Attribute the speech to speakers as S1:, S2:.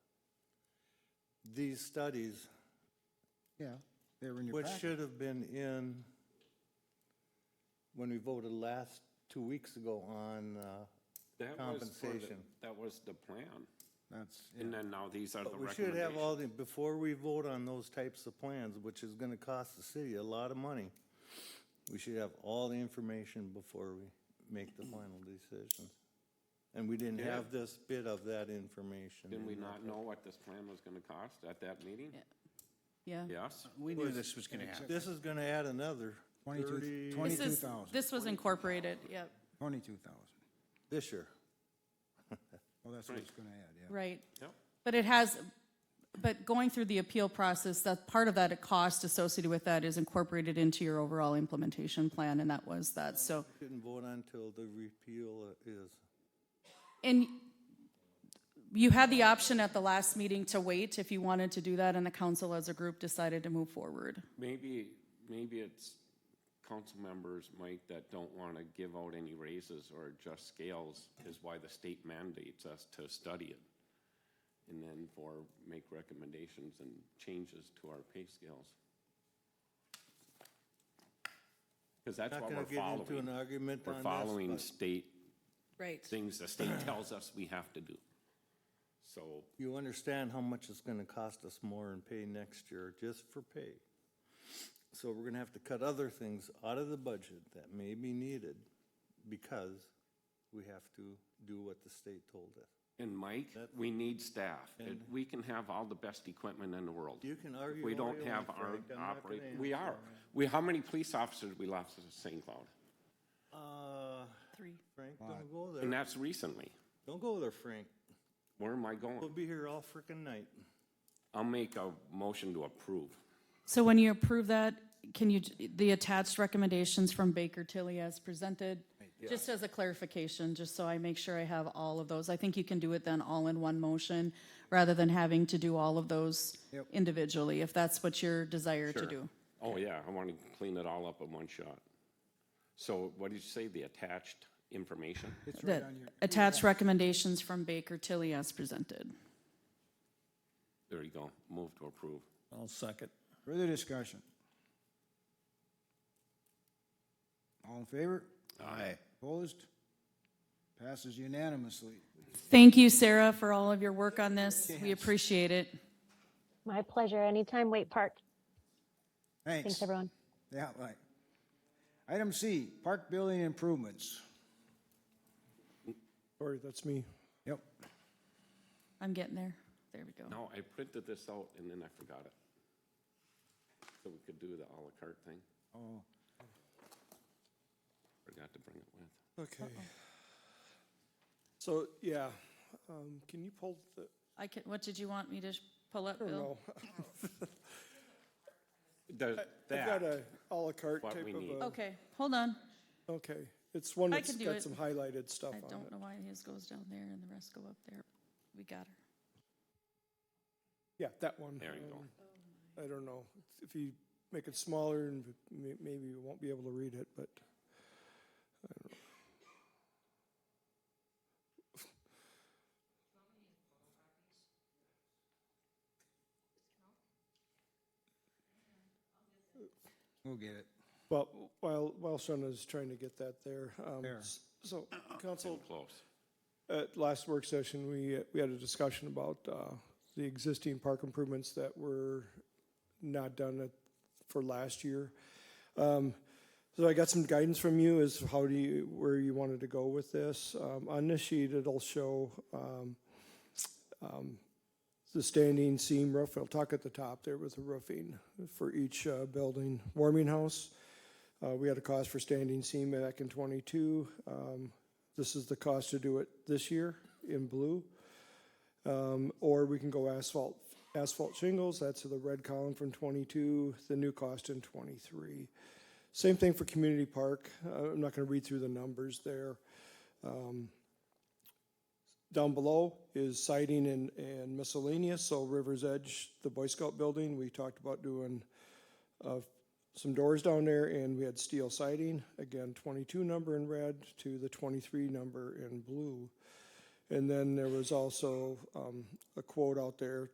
S1: these studies,
S2: Yeah, they were in your
S1: which
S2: packet.
S1: should have been in when we voted last, two weeks ago on, uh,
S3: That was for the-
S1: Compensation.
S3: That was the plan.
S2: That's, yeah.
S3: And then now these are the
S1: but we should have
S3: recommendations.
S1: all the, before we vote on those types of plans, which is gonna cost the city a lot of money, we should have all the information before we make the final decision. And we didn't
S3: Yeah.
S1: have this bit of that information.
S3: Didn't we
S1: in there.
S3: not know what this plan was gonna cost at that meeting?
S4: Yeah.
S3: Yes?
S5: We knew this was gonna happen.
S1: This is gonna add another
S2: 22
S1: thirty,
S2: twen-
S4: This is-
S2: 22,000.
S4: This was incorporated, yep,
S2: Twenty-two thousand.
S1: this year.
S2: Well, that's what it's gonna add, yeah.
S4: right.
S3: Yep.
S4: But it has, but going through the appeal process, that, part of that cost associated with that is incorporated into your overall implementation plan, and that was that, so.
S1: Didn't vote on till the repeal is.
S4: And you had the option at the last meeting to wait if you wanted to do that, and the council as a group decided to move forward.
S3: Maybe, maybe it's council members, Mike, that don't want to give out any raises or adjust scales is why the state mandates us to study it. And then for, make recommendations and changes to our pay scales. Because that's
S1: Not
S3: what
S1: gonna
S3: we're
S1: get into an
S3: following.
S1: argument on
S3: We're
S1: this,
S3: following
S1: but
S3: state,
S4: Right.
S3: things the state tells us we have to do. So
S1: You understand how much it's gonna cost us more in pay next year, just for pay. So we're gonna have to cut other things out of the budget that may be needed because we have to do what the state told us.
S3: And Mike, we need staff. It- We can have all the best equipment in the world.
S1: You can
S3: If
S1: argue
S3: We
S1: all
S3: don't
S1: you
S3: have
S1: want,
S3: our
S1: Frank, I'm not gonna
S3: operate, we
S1: answer
S3: are. We, how many police officers we lost in St. Cloud?
S1: Uh,
S4: Three.
S1: Frank, don't go
S3: And
S1: there.
S3: that's recently.
S1: Don't go there, Frank.
S3: Where am I
S1: We'll
S3: going?
S1: be here all frickin' night.
S3: I'll make a motion to approve.
S4: So when you approve that, can you, the attached recommendations from Baker Tilly as presented? Just as a clarification, just so I make sure I have all of those. I think you can do it then all in one motion rather than having to do all of those individually, if that's what your desire to do.
S3: Oh, yeah, I want to clean it all up in one shot. So what did you say, the attached information?
S2: It's right
S4: The
S2: on your,
S4: attached recommendations from Baker Tilly as presented.
S3: There you go, move to approve.
S5: I'll second.
S2: further discussion. All in favor?
S5: Aye.
S2: Opposed? Passes unanimously.
S4: Thank you, Sarah, for all of your work on this. We appreciate it.
S6: My pleasure. Anytime, Wait Park.
S2: Thanks.
S6: Thanks, everyone.
S2: Yeah, right. Item C, park building improvements.
S7: Sorry, that's me.
S2: Yep.
S4: I'm getting there. There we go.
S3: No, I printed this out and then I forgot it. So we could do the à la carte thing.
S2: Oh,
S3: Forgot to bring it with.
S7: Okay. So, yeah, um, can you pull the,
S4: I can, what did you want me to sh- pull up,
S7: I don't
S4: Bill?
S7: know.
S3: Does
S7: I've got
S3: that,
S7: a à la carte
S3: What
S7: type
S3: we
S7: of
S3: need.
S2: uh,
S7: a.
S4: Okay, hold on.
S7: Okay, it's one
S4: Oh. I
S7: that's
S4: can do it.
S7: got some highlighted stuff
S4: I
S7: on
S4: don't
S7: it.
S4: know why his goes down there and the rest go up there. We got her.
S7: Yeah, that one.
S3: There you go.
S7: um, I don't know, if you make it smaller and may- maybe you won't be able to read it, but I don't know.
S2: we'll get it.
S7: Well, while, while Shauna's trying to get that there, um,
S2: There.
S7: s- so council,
S3: close.
S7: At last work session, we, uh, we had a discussion about uh, the existing park improvements that were not done at- for last year. Um, So I got some guidance from you as to how do you, where you wanted to go with this. Um, On this sheet, it'll show um, um, the standing seam roof. I'll talk at the top there with the roofing for each uh, building. Warming house, uh, we had a cost for standing seam back in '22. This is the cost to do it this year in blue. Um, or we can go asphalt, asphalt shingles, that's the red column from twenty-two, the new cost in twenty-three. Same thing for community park, uh, I'm not gonna read through the numbers there. Um, Down below is siding and, and miscellaneous, so River's Edge, the Boy Scout building, we talked about doing some doors down there and we had steel siding, again, twenty-two number in red to the twenty-three number in blue. And then there was also, um, a quote out there